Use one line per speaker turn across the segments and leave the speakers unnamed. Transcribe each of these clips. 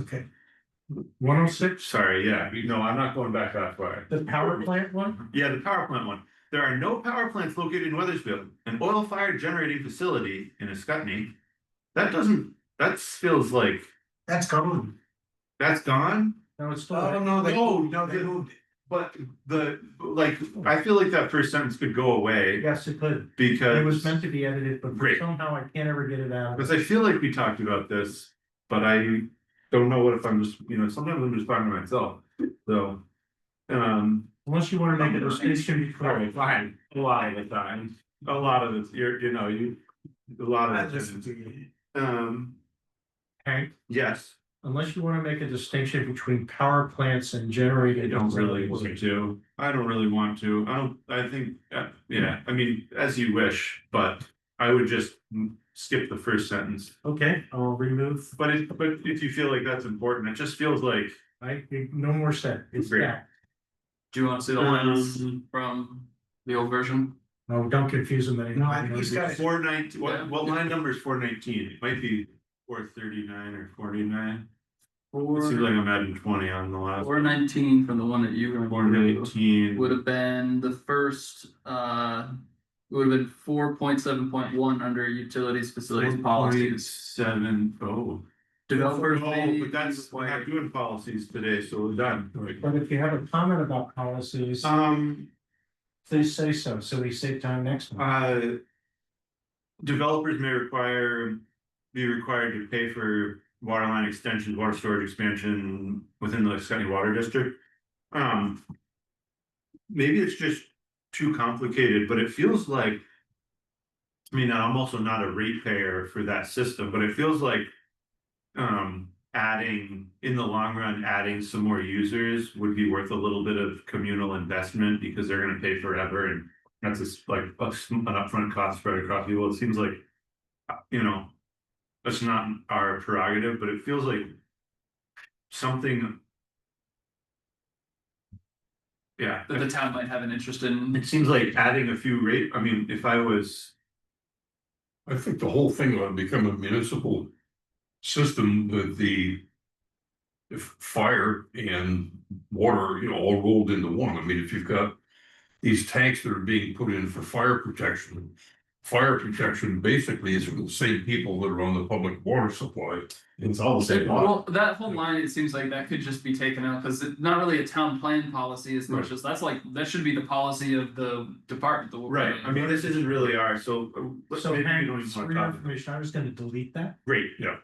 Okay,
One oh six,
sorry, yeah, you know, I'm not going back that far.
the power plant one?
Yeah, the power plant one. There are no power plants located in Weathersfield, an oil fired generating facility in Ascutney. That doesn't, that feels like,
That's gone.
that's gone?
No, it's still.
Oh, no, they.
No, no,
They
they-
moved it.
But the, like, I feel like that first sentence could go away
Yes, it could.
because.
It was meant to be edited, but
Great.
somehow I can't ever get it out.
Cause I feel like we talked about this, but I don't know what if I'm just, you know, sometimes I'm just talking to myself, so. Um.
Unless you wanna make a distinction
Sorry,
between.
fine, a lot of the time, a lot of this, you're, you know, you, a lot
I
of this,
listened to you.
um,
Hank,
yes.
Unless you wanna make a distinction between power plants and generated.
I don't really want to, I don't really want to, I don't, I think, uh, yeah, I mean, as you wish, but I would just mm, skip the first sentence.
Okay, I'll remove,
But it, but if you feel like that's important, it just feels like.
I, no more said, it's
Great.
that.
Do you want to see the lines from the old version?
No, don't confuse them anymore.
No, I think he's got it.
Four nineteen,
Yeah.
what, what line number is four nineteen? It might be four thirty-nine or forty-nine. It seems like
Four,
I'm adding twenty on the last.
four nineteen from the one that you
Four
remember would
nineteen,
have been the first, uh. it Would have been four point seven point one under utilities facilities
four point
policies.
seven, oh.
Developers may
No, but that's, we're
require-
not doing policies today, so we're done.
But if you have a comment about policies,
Um,
please say so, so we save time next time.
uh. Developers may require, be required to pay for water line extensions, water storage expansion within the Scotty Water District. Um. Maybe it's just too complicated, but it feels like. I mean, I'm also not a ratepayer for that system, but it feels like. Um, adding, in the long run, adding some more users would be worth a little bit of communal investment because they're gonna pay forever and. That's just like a s- an upfront cost spread across people. It seems like, uh, you know, that's not our prerogative, but it feels like something. Yeah,
That the town might have an interest in,
it seems like adding a few rate, I mean, if I was,
I think the whole thing ought to become a municipal system with the. If fire and water, you know, all rolled into one. I mean, if you've got these tanks that are being put in for fire protection. Fire protection basically is from the same people that are on the public water supply.
It's all the same law.
well, that whole line, it seems like that could just be taken out, cause it's not really a town plan policy as much as, that's like, that should be the policy of the department. the-
right, I mean, this isn't really our, so. uh, let's
So
maybe we
Hank,
don't even
for
wanna
your
talk-
information, I was gonna delete that,
Great, yeah.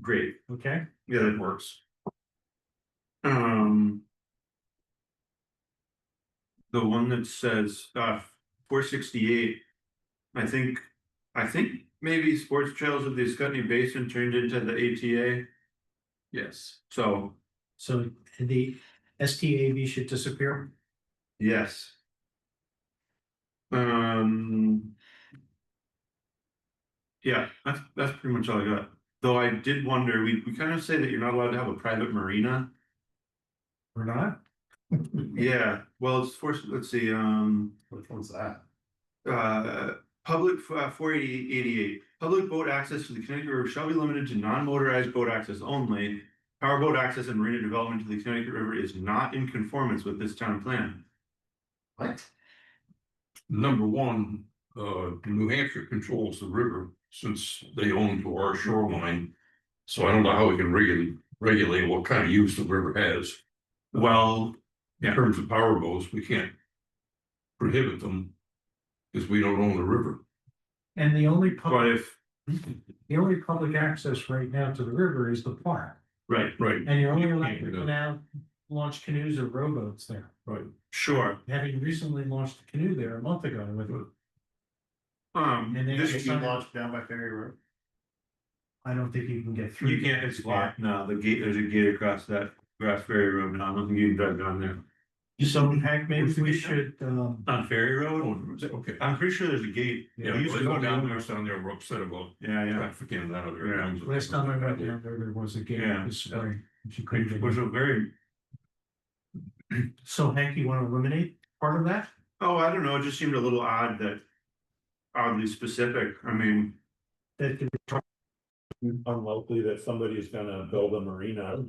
Great,
okay?
yeah, that works. Um. The one that says, uh, four sixty-eight. I think, I think maybe Sports Trails of the Scotty Basin turned into the ATA,
Yes.
so,
So the STAV should disappear.
yes. Um. Yeah, that's, that's pretty much all I got, though I did wonder, we, we kind of say that you're not allowed to have a private marina.
We're not?
Yeah, well, it's for, let's see, um,
Which one's that?
uh, public, uh, four eighty, eighty-eight. Public boat access to the Connecticut River shall be limited to non-motorized boat access only. Powerboat access and marina development to the Connecticut River is not in conformance with this town plan.
What?
Number one, uh, New Hampshire controls the river since they own to our shoreline. So I don't know how we can regulate, regulate what kind of use the river has.
Well,
in
Yeah.
terms of power boats, we can't prohibit them because we don't own the river.
And the only
but
public,
if,
the only public access right now to the river is the park.
right,
Right.
And you're only
You
allowed
can't
to
do
now launch canoes or rowboats there.
sure,
Having recently launched a canoe there a month ago with,
um,
And then
this,
it's
It's
not-
been launched down by Ferry Road.
I don't think you can get through.
you can't, it's locked now, the gate, there's a gate across that grass ferry road now, I don't think you can drive down there.
So Hank, maybe we should, um,
On ferry
Oh,
road,
Okay.
I'm pretty sure there's a gate.
Yeah,
We used to go down there.
down there, we're upset about
Yeah, yeah.
traffic in that
Yeah.
other. times.
last time I went down there, there was a gate
Yeah.
this spring. If you couldn't
Which
get
was
in.
a very,
So Hank, you wanna eliminate part of that?
oh, I don't know, it just seemed a little odd that oddly specific, I mean,
That could
unlikely that somebody's gonna build a marina